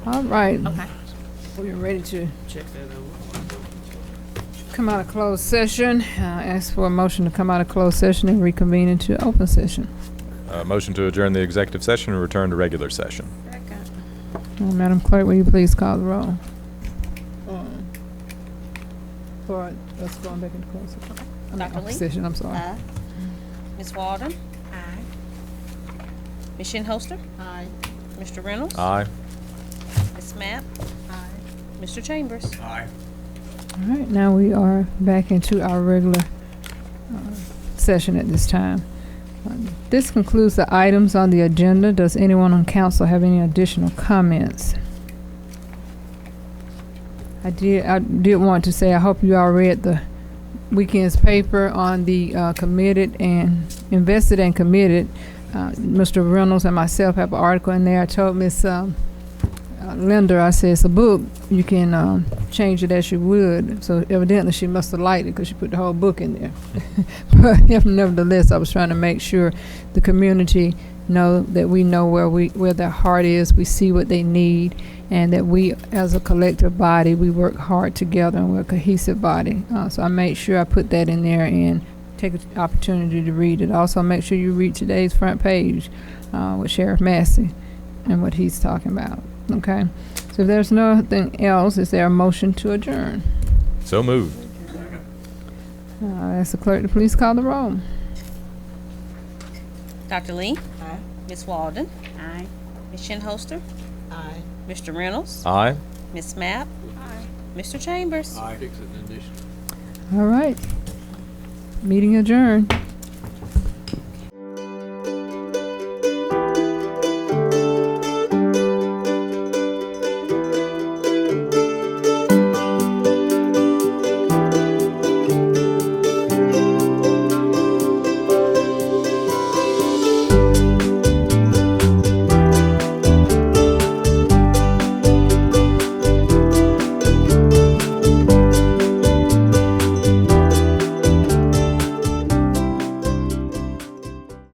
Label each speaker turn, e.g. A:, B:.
A: All right,
B: Okay.
A: Oh, we're ready to
C: Check that out.
A: come out of closed session. Uh, Ask for a motion to come out of closed session and reconvene into open session.
D: Uh, Motion to adjourn the executive session and return to regular session.
A: Uh, Madam Clerk, will you please call the roll? Um, For us going back into closed session. I mean,
B: Dr.
A: open
B: Lee? Uh,
A: Session, I'm sorry.
B: Aye. Ms. Walden? Aye. Ms. Shinholster? Aye. Mr. Reynolds?
D: Aye.
B: Ms. Mapp? Aye. Mr. Chambers?
A: All right, now we are back into our regular uh, session at this time. Um, This concludes the items on the agenda. Does anyone on council have any additional comments? I did, I did want to say, I hope you all read the weekend's paper on the uh, committed and, invested and committed. Uh, Mr. Reynolds and myself have an article in there. I told Ms. um, uh, Linder, I said, it's a book, you can um, change it as she would. So evidently she must have liked it because she put the whole book in there. but if nevertheless, I was trying to make sure the community know that we know where we where their heart is. We see what they need, and that we, as a collective body, we work hard together and we're a cohesive body. Uh, so I made sure I put that in there and take an opportunity to read it. Also, make sure you read today's front page uh, with Sheriff Massey and what he's talking about. Okay. So if there's nothing else, is there a motion to adjourn?
D: So moved.
A: Uh, ask the clerk to please call the roll.
B: Dr. Lee? Aye. Ms. Walden? Aye. Ms. Shinholster? Aye. Mr. Reynolds?
D: Aye.
B: Ms. Mapp? Aye. Mr. Chambers?
C: Fix it in addition.
A: All right. Meeting adjourned.